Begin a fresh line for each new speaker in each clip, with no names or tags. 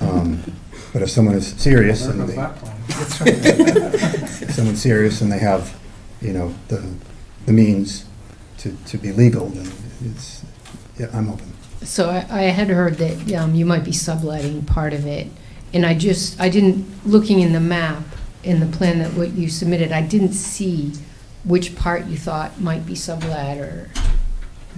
Um, But if someone is serious
There
and
goes
they,
that plan. That's right.
if someone's serious and they have, you know, the, the means to, to be legal, then it's, yeah, I'm open.
So I, I had heard that um, you might be subletting part of it, and I just, I didn't, looking in the map, in the plan that what you submitted, I didn't see which part you thought might be sublet or,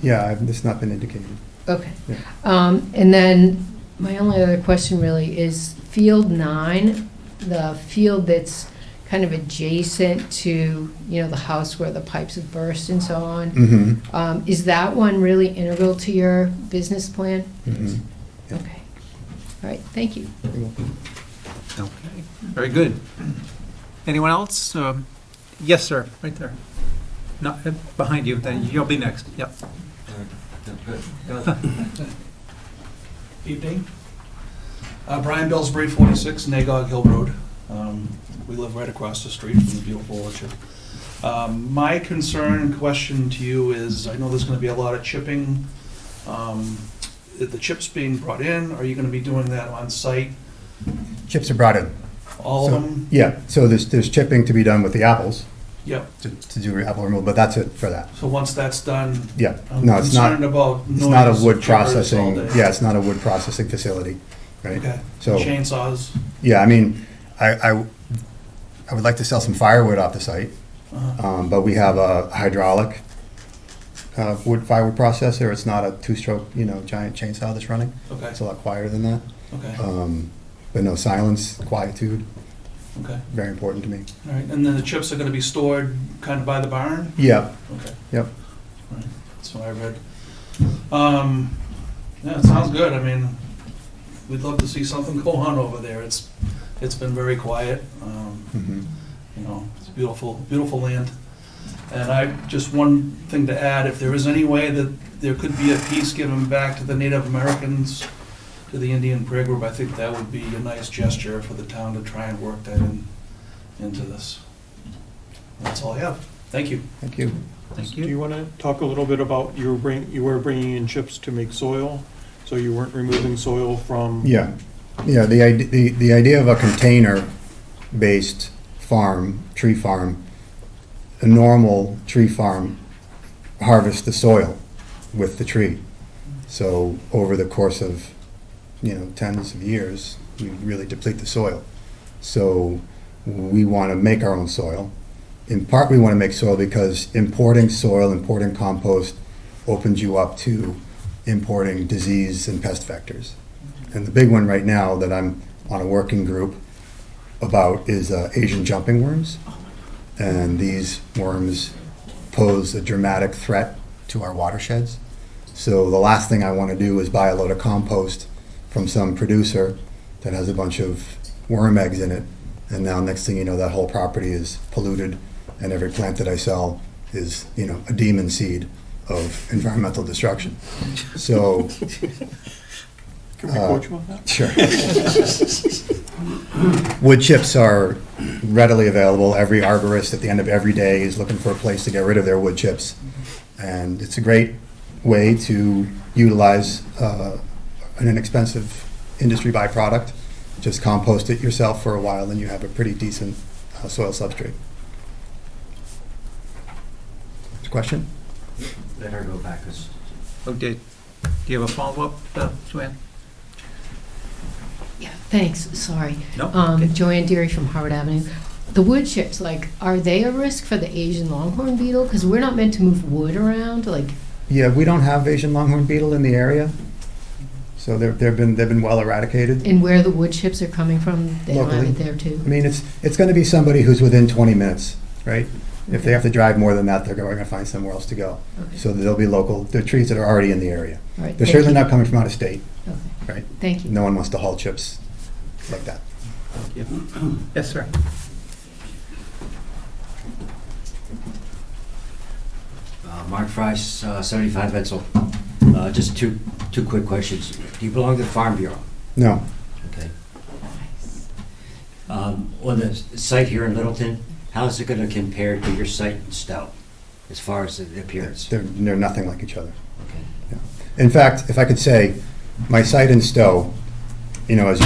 Yeah, I've- it's not been indicated.
okay.
Yeah.
Um, And then, my only other question really is Field Nine, the field that's kind of adjacent to, you know, the house where the pipes have burst and so on,
Mm-hmm.
um, is that one really integral to your business plan?
Mm-hmm. Yeah.
Okay. All right, thank you.
Okay, very good. Anyone else? Um, Yes, sir, right there. Not, uh, behind you, then you'll be next, yep.
Evening. Uh, Brian Billsbury, 46 Nagog Hill Road. Um, We live right across the street from the beautiful orchard. Um, My concern and question to you is, I know there's going to be a lot of chipping. Um, i- The chips being brought in, are you going to be doing that on site,
Chips are brought in.
all of
So-
them?
Yeah, so there's, there's chipping to be done with the apples,
Yep,
to, to do apple removal, but that's it for that.
so once that's done,
Yeah,
I'm
no, it's not,
concerned about noise.
it's not a wood
chippers all
processing,
day.
yeah, it's not a wood processing facility, right?
Okay,
So-
chainsaws.
Yeah, I mean, I, I, I would like to sell some firewood off the site,
uh-huh.
um, but we have a hydraulic, uh, wood firewood processor, it's not a two-stroke, you know, giant chainsaw that's running,
Okay,
it's a lot quieter than that.
okay,
Um, but no, silence, quietude,
okay.
very important to me.
All right, and then the chips are going to be stored kind of by the barn?
Yeah,
Okay.
Yep.
All right, That's what I read. Um, yeah, it sounds good. I mean, we'd love to see something go on over there. It's, it's been very quiet. Um,
mhm.
you know, it's beautiful, beautiful land. And I, just one thing to add, if there is any way that there could be a piece given back to the Native Americans, to the Indian prayer group, I think that would be a nice gesture for the town to try and work that in, into this. That's all I have. Thank you.
thank you.
Thank
Do
you.
you want to talk a little bit about, you were bringing, you were bringing in chips to make soil, so you weren't removing soil from?
Yeah, yeah, the, id- the, the idea of a container-based farm, tree farm, a normal tree farm harvests the soil with the tree. So over the course of, you know, tens of years, we really deplete the soil. So we want to make our own soil. In part, we want to make soil because importing soil, importing compost opens you up to importing disease and pest vectors. And the big one right now that I'm on a working group about is uh, Asian jumping worms. And these worms pose a dramatic threat to our watersheds. So the last thing I want to do is buy a load of compost from some producer that has a bunch of worm eggs in it. And now next thing you know, that whole property is polluted and every plant that I sell is, you know, a demon seed of environmental destruction. So,
Can we quote you on that?
Sure. Wood chips are readily available. Every arborist at the end of every day is looking for a place to get rid of their wood chips. And it's a great way to utilize uh, an inexpensive industry byproduct. Just compost it yourself for a while and you have a pretty decent uh, soil substrate. Question?
Let her go back, 'cause
Okay, do you have a follow-up, uh, Joanne?
Yeah, thanks, sorry.
No? Okay.
Um, Joanne Deary from Harvard Avenue. The wood chips, like, are they a risk for the Asian longhorn beetle? Because we're not meant to move wood around, like,
Yeah, we don't have Asian longhorn beetle in the area. So they're- they've been, they've been well eradicated.
and where the wood chips are coming from, they don't have
Locally.
it there
I
too.
mean, it's, it's going to be somebody who's within 20 minutes, right? If they have to drive more than that, they're going to find somewhere else to go.
Okay.
Mm-hmm. So there'll be local, there are trees that are already in the area.
All right,
They're
thank
certainly
you.
not coming from out of state,
Okay,
right?
Thank you.
No one wants to haul chips like that.
Yes, sir.
uh, Mark Price, uh, 75 Etzel. Uh, Just two, two quick questions. Do you belong to the Farm Bureau?
No,
Okay. Um, On the site here in Littleton, how's it going to compare to your site in Stout as far as the appearance?
they're, they're nothing like each other.
Okay.
In fact, if I could say, my site in Stowe, you know, as